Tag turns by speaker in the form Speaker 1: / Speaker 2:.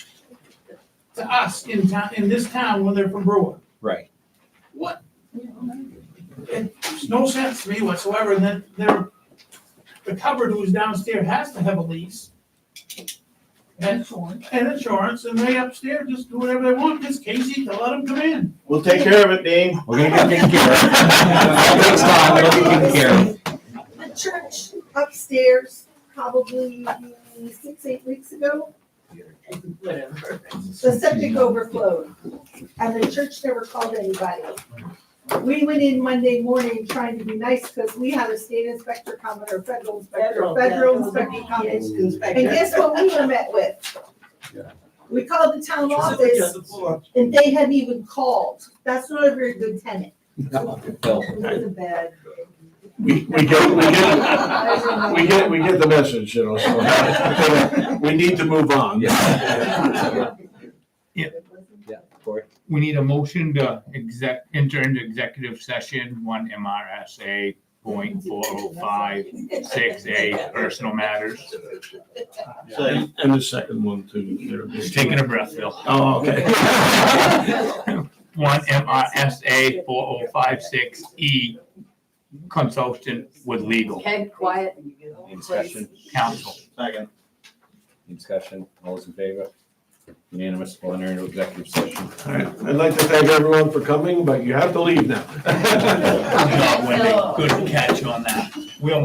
Speaker 1: to us in town, in this town when they're from Brewer.
Speaker 2: Right.
Speaker 1: What? It's no sense to me whatsoever, and then there, the cupboard who's downstairs has to have a lease. And, and insurance, and they upstairs just do whatever they want, just Casey to let them come in.
Speaker 3: We'll take care of it, Dean.
Speaker 2: We're gonna get taken care of. It Takes time, it'll be taken care of.
Speaker 4: The church upstairs, probably six, eight weeks ago,
Speaker 5: Whatever.
Speaker 4: the septic overflowed, and the church never called anybody. We went in Monday morning trying to be nice, because we had a state inspector coming, or federal inspector,
Speaker 5: Federal, yeah.
Speaker 4: federal inspector coming. And guess what we were met with? We called the town office, and they hadn't even called, that's not a very good tenant.
Speaker 2: No.
Speaker 4: It was a bad.
Speaker 3: We, we get, we get, we get, we get the message, you know, so. We need to move on.
Speaker 2: Yeah. Cory?
Speaker 6: we need a motion to exec, enter into executive session, one MRSA point four oh five six A, personal matters.
Speaker 3: And and the second one too. there.
Speaker 6: Just taking a breath, Bill.
Speaker 3: Oh, okay.
Speaker 6: One MRSA four oh five six E, consultant with legal
Speaker 5: Head quiet.
Speaker 2: Any discussion?
Speaker 6: counsel.
Speaker 3: Second.
Speaker 2: Any discussion? All those in favor? Unanimous, we'll enter into executive session.
Speaker 3: All right, I'd like to thank everyone for coming, but you have to leave now.
Speaker 6: Good job, Wendy. Good catch on that.